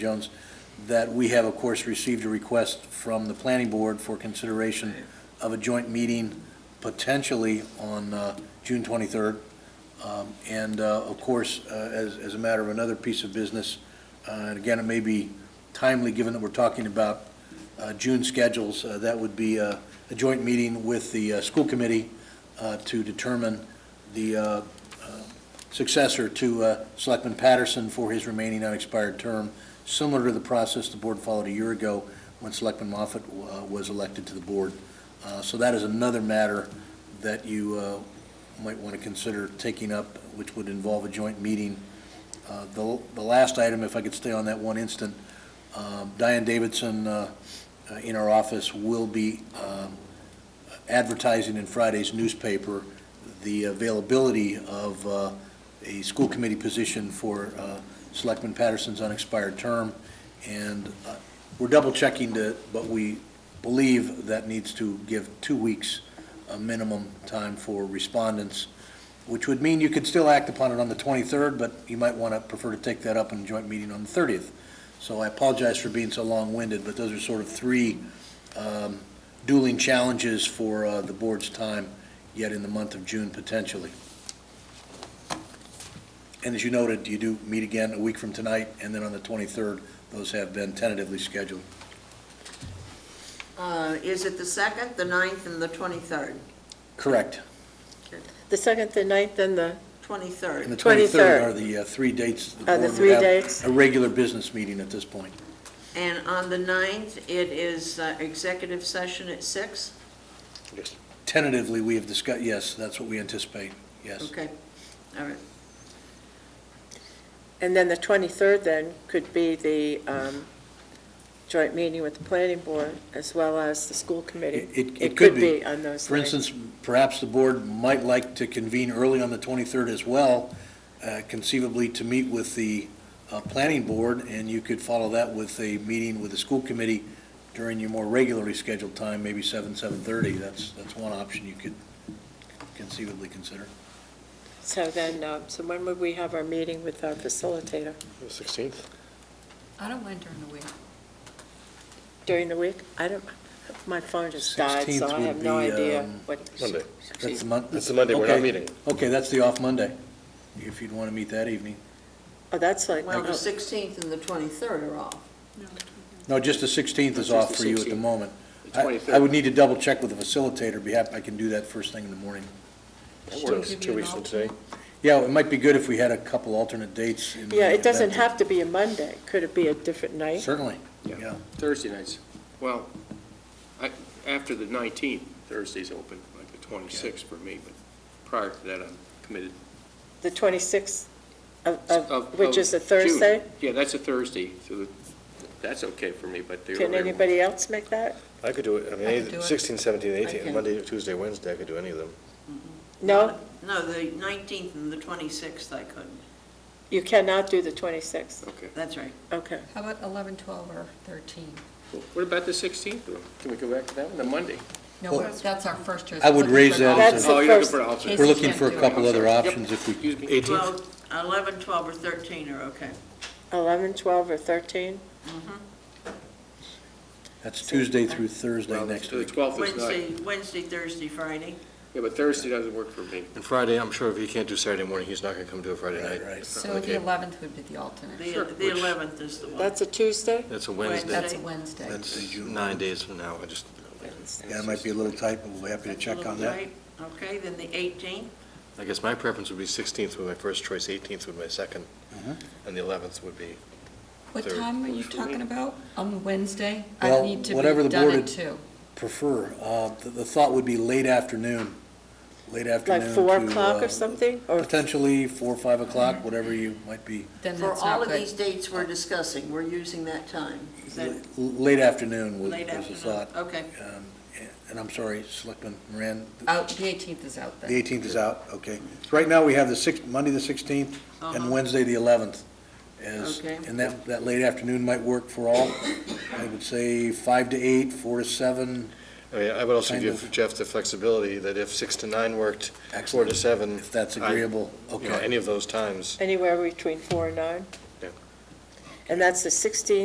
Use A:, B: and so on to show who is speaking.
A: Jones, that we have, of course, received a request from the planning board for consideration of a joint meeting potentially on uh, June 23rd. Um, And uh, of course, uh, as, as a matter of another piece of business, uh, and again, it may be timely, given that we're talking about uh, June schedules, uh, that would be uh, a joint meeting with the uh, school committee uh, to determine the uh, successor to uh, Selectman Patterson for his remaining unexpired term, similar to the process the board followed a year ago when Selectman Moffett uh, was elected to the board. Uh, So that is another matter that you uh, might want to consider taking up, which would involve a joint meeting. Uh, The the last item, if I could stay on that one instant, um, Diane Davidson uh, uh, in our office will be um, advertising in Friday's newspaper the availability of uh, a school committee position for uh, Selectman Patterson's unexpired term. And uh, we're double checking to, but we believe that needs to give two weeks a minimum time for respondents, which would mean you could still act upon it on the 23rd, but you might want to prefer to take that up in joint meeting on the 30th. So I apologize for being so long-winded, but those are sort of three um, dueling challenges for uh, the board's time yet in the month of June potentially. And as you noted, you do meet again a week from tonight, and then on the 23rd, those have been tentatively scheduled.
B: Uh, Is it the 2nd, the 9th, and the 23rd?
A: Correct.
C: The second, the ninth, and the,
A: And the
B: 23rd.
A: 23rd
C: 23rd.
A: are the uh, three dates. the
C: Are the
A: board would
C: three
A: have
C: dates?
A: A regular business meeting at this point.
B: And on the 9th, it is uh, executive session at 6?
A: Tentatively, we have discussed, yes, that's what we anticipate, yes.
B: Okay, all right.
C: and then the 23rd then could be the um, joint meeting with the planning board as well as the school committee.
A: It- it could be.
C: on those
A: For
C: nights.
A: instance, perhaps the board might like to convene early on the 23rd as well, uh, conceivably to meet with the uh, planning board, and you could follow that with a meeting with the school committee during your more regularly scheduled time, maybe 7, 7:30. That's, that's one option you could conceivably consider.
C: So then, um, so when would we have our meeting with our facilitator?
D: The 16th?
E: I don't mind during the week.
C: During the week? I don't, my phone just died,
A: 16th
C: so I
A: would
C: have no
A: be,
C: idea
A: um,
C: what.
D: Monday.
A: That's the month.
D: That's the Monday we're not
A: okay.
D: meeting.
A: Okay, that's the off Monday, if you'd want to meet that evening.
C: Oh, that's like,
B: Well, the
C: oh,
B: 16th and the 23rd are off.
A: No, just the 16th is
F: Just
A: off
F: the
A: for you at the
F: 16th.
A: moment.
F: The
A: I
F: 23rd.
A: I would need to double check with the facilitator, be happy, I can do that first thing in the morning.
F: That
D: So
F: works.
D: it's two weeks from today.
A: Yeah, it might be good if we had a couple alternate dates. in the
C: yeah, it doesn't
A: event.
C: have to be a Monday. Could it be a different night?
A: Certainly,
F: Yeah.
A: yeah.
F: Thursday nights, well, I, after the 19th, Thursday's open, like the 26th for me, but prior to that, I'm committed.
C: The 26th of-
F: Of-
C: of, Oh, which
F: of
C: is a
F: June.
C: Thursday?
F: Yeah, that's a Thursday, so the- that's okay for me, but the
C: Can
F: earlier
C: anybody else make that?
D: I could do it, I
E: I could do
D: mean,
E: it.
D: 16, 17,
E: I
D: 18,
E: can-
D: Monday, Tuesday, Wednesday, I could do any of them.
C: No,
B: No, the 19th and the 26th I couldn't.
C: you cannot do the 26th.
F: Okay.
B: That's right.
C: Okay.
E: How about 11, 12, or 13?
F: What about the 16th, though? Can we go back to that one, the Monday?
E: No,
A: Well,
E: we're- that's our first year.
A: I would raise that as
C: That's
F: Oh,
C: the
F: you're looking
C: first-
F: for an alternate.
A: We're looking for
E: do
A: a
E: it.
A: couple
F: I'm
A: other
F: sorry. Yep.
A: options if we,
F: Excuse me.
B: 12, 11, 12, or 13 are okay.
C: 11, 12, or 13?
A: Mm-hmm. that's Tuesday through Thursday
F: Well,
A: next
F: so The
A: week.
F: 12th is not,
B: Wednesday, Wednesday, Thursday, Friday.
F: yeah, but Thursday doesn't work for me.
D: And Friday, I'm sure if he can't do Saturday morning, he's not going to come do it Friday
A: Right,
D: night.
A: right.
E: So the
D: Okay.
E: 11th would be the alternate.
F: Sure,
B: The the
F: which-
B: 11th is the one.
C: That's a Tuesday?
D: That's a
B: Wednesday.
D: Wednesday.
E: That's a Wednesday.
D: That's nine days from now, I just,
A: Yeah, it might be a little tight, but we'll be happy to
B: That's a
A: check
B: little
A: on that.
B: tight. Okay, then the 18th.
D: I guess my preference would be 16th would be my first choice, 18th would be my second, and the 11th would be,
E: What
D: Third.
E: time are you talking about? On Wednesday? I
A: Well,
E: need to
A: whatever the
E: be done
A: board
E: at
A: had-
E: 2.
A: Prefer, uh, the the thought would be late afternoon, late afternoon.
C: Like 4
A: to,
C: o'clock
A: uh,
C: or something? Or
A: Potentially 4, or 5 o'clock, whatever you might be,
E: Then
B: For
E: that's
B: all
E: not
B: of these
E: good.
B: dates we're discussing, we're using that time. Is that
A: l- late afternoon was
B: late
A: was the
B: afternoon?
A: thought.
B: Okay.
A: Um, And I'm sorry, Selectman Moran,
E: Out, the 18th is out
A: The
E: then.
A: 18th is out, okay. So right now, we have the 6th, Monday, the 16th, and
B: Uh-huh.
A: Wednesday, the 11th. as-
B: Okay.
A: And that, that late afternoon might work for all. I would say 5 to 8, 4 to 7.
D: I mean, I would also
A: Kind
D: give
A: of-
D: Jeff the flexibility that if 6 to 9 worked, 4 to
A: Excellent.
D: 7.
A: If that's
D: I-
A: agreeable,
D: You know,
A: okay.
D: any of those times.
C: anywhere between 4 and 9? And that's the 16th